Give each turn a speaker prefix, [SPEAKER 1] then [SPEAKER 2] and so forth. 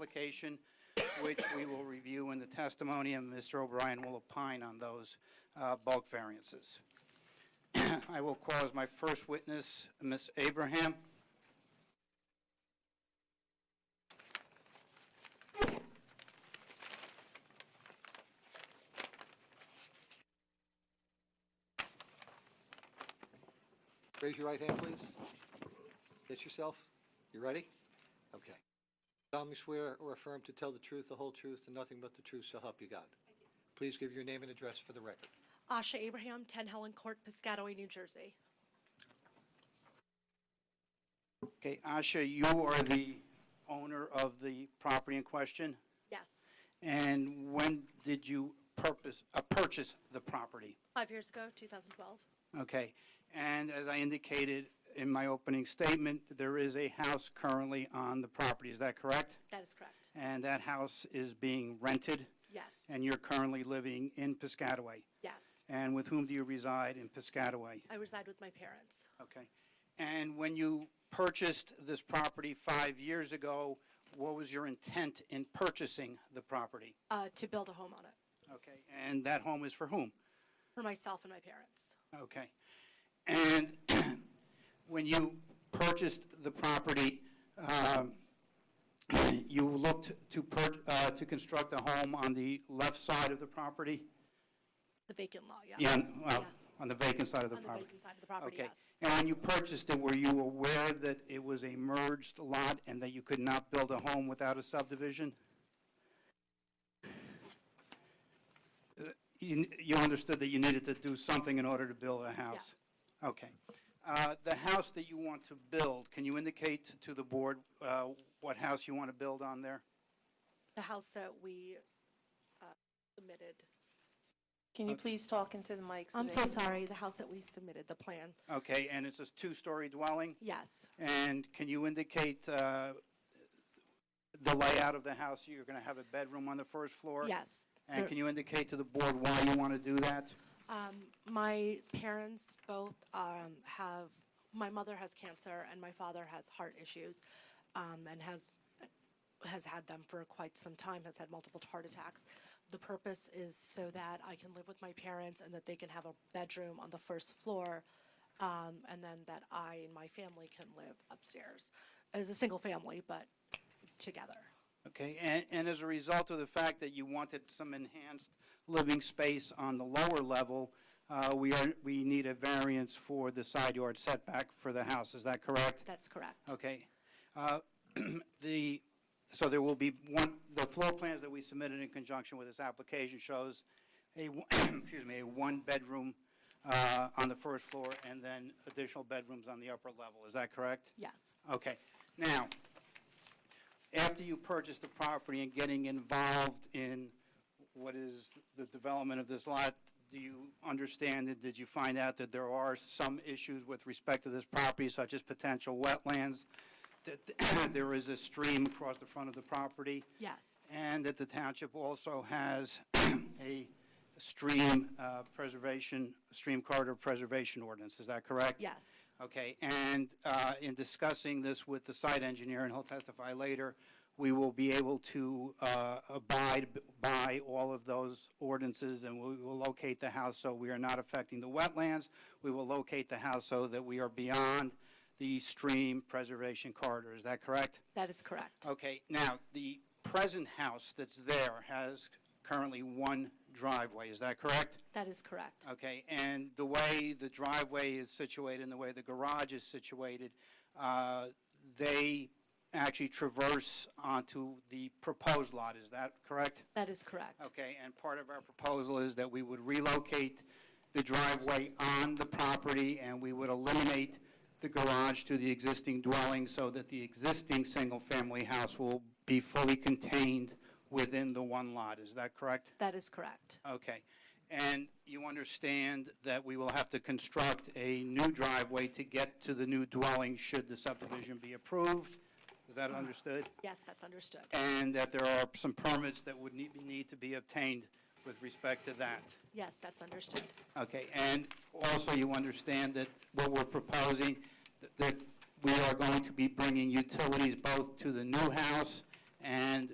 [SPEAKER 1] application, which we will review in the testimony, and Mr. O'Brien will opine on those uh, bulk variances. I will call as my first witness, Ms. Abraham.
[SPEAKER 2] Raise your right hand, please. Get yourself. You ready? Okay. solemnly swear or affirm to tell the truth, the whole truth, and nothing but the truth, so help you God. Please give your name and address for the record.
[SPEAKER 3] Asha Abraham, 10 Helen Court, Piscataway, New Jersey.
[SPEAKER 1] Okay, Asha, you are the owner of the property in question,
[SPEAKER 3] Yes,
[SPEAKER 1] and when did you purpose, uh, purchase the property?
[SPEAKER 3] five years ago, 2012.
[SPEAKER 1] Okay, and as I indicated in my opening statement, there is a house currently on the property, is that correct?
[SPEAKER 3] That is correct.
[SPEAKER 1] And that house is being rented,
[SPEAKER 3] Yes,
[SPEAKER 1] and you're currently living in Piscataway?
[SPEAKER 3] yes.
[SPEAKER 1] And with whom do you reside in Piscataway?
[SPEAKER 3] I reside with my parents.
[SPEAKER 1] Okay. And when you purchased this property five years ago, what was your intent in purchasing the property?
[SPEAKER 3] Uh, to build a home on it
[SPEAKER 1] Okay, and that home is for whom?
[SPEAKER 3] for myself and my parents.
[SPEAKER 1] Okay. And when you purchased the property, um, you looked to per, uh, to construct a home on the left side of the property?
[SPEAKER 3] The vacant lot, yeah.
[SPEAKER 1] Yeah, on- well,
[SPEAKER 3] Yeah.
[SPEAKER 1] on the vacant side of the
[SPEAKER 3] On the
[SPEAKER 1] property.
[SPEAKER 3] vacant side of the property,
[SPEAKER 1] Okay.
[SPEAKER 3] yes.
[SPEAKER 1] And when you purchased it, were you aware that it was a merged lot and that you could not build a home without a subdivision? Uh, You you understood that you needed to do something in order to build a house? Okay. Uh, The house that you want to build, can you indicate to the board uh, what house you want to build on there?
[SPEAKER 3] The house that we uh, submitted.
[SPEAKER 4] Can you please talk into the mic?
[SPEAKER 3] I'm
[SPEAKER 4] they
[SPEAKER 3] so
[SPEAKER 4] can-
[SPEAKER 3] sorry, the house that we submitted, the plan.
[SPEAKER 1] Okay, and it's a two-story dwelling?
[SPEAKER 3] Yes,
[SPEAKER 1] And can you indicate uh, the layout of the house? You're going to have a bedroom on the first floor?
[SPEAKER 3] yes.
[SPEAKER 1] And
[SPEAKER 3] There-
[SPEAKER 1] can you indicate to the board why you want to do that?
[SPEAKER 3] Um, my parents both um, have, my mother has cancer and my father has heart issues um, and has has had them for quite some time, has had multiple heart attacks. The purpose is so that I can live with my parents and that they can have a bedroom on the first floor um, and then that I and my family can live upstairs as a single family, but together.
[SPEAKER 1] Okay, and, and as a result of the fact that you wanted some enhanced living space on the lower level, uh, we are, we need a variance for the side yard setback for the house, is that correct?
[SPEAKER 3] That's correct.
[SPEAKER 1] Okay. Uh, The, so there will be one, the floor plans that we submitted in conjunction with this application shows a, w- excuse me, a one-bedroom uh, on the first floor and then additional bedrooms on the upper level. Is that correct?
[SPEAKER 3] Yes.
[SPEAKER 1] Okay. Now, after you purchase the property and getting involved in what is the development of this lot, do you understand that, did you find out that there are some issues with respect to this property, such as potential wetlands? That there is a stream across the front of the property?
[SPEAKER 3] Yes.
[SPEAKER 1] And that the township also has a stream uh, preservation, stream corridor preservation ordinance, is that correct?
[SPEAKER 3] Yes.
[SPEAKER 1] Okay, and uh, in discussing this with the site engineer, and he'll testify later, we will be able to uh, abide by all of those ordinances, and we will locate the house so we are not affecting the wetlands. We will locate the house so that we are beyond the stream preservation corridor. Is that correct?
[SPEAKER 3] That is correct.
[SPEAKER 1] Okay, now, the present house that's there has currently one driveway. Is that correct?
[SPEAKER 3] That is correct.
[SPEAKER 1] Okay, and the way the driveway is situated and the way the garage is situated, uh, they actually traverse onto the proposed lot, is that correct?
[SPEAKER 3] That is correct.
[SPEAKER 1] Okay, and part of our proposal is that we would relocate the driveway on the property, and we would eliminate the garage to the existing dwelling so that the existing single-family house will be fully contained within the one lot, is that correct?
[SPEAKER 3] That is correct.
[SPEAKER 1] Okay. And you understand that we will have to construct a new driveway to get to the new dwelling should the subdivision be approved? Is that understood?
[SPEAKER 3] Yes, that's understood.
[SPEAKER 1] And that there are some permits that would need, need to be obtained with respect to that?
[SPEAKER 3] Yes, that's understood.
[SPEAKER 1] Okay, and also you understand that what we're proposing, th- that we are going to be bringing utilities both to the new house and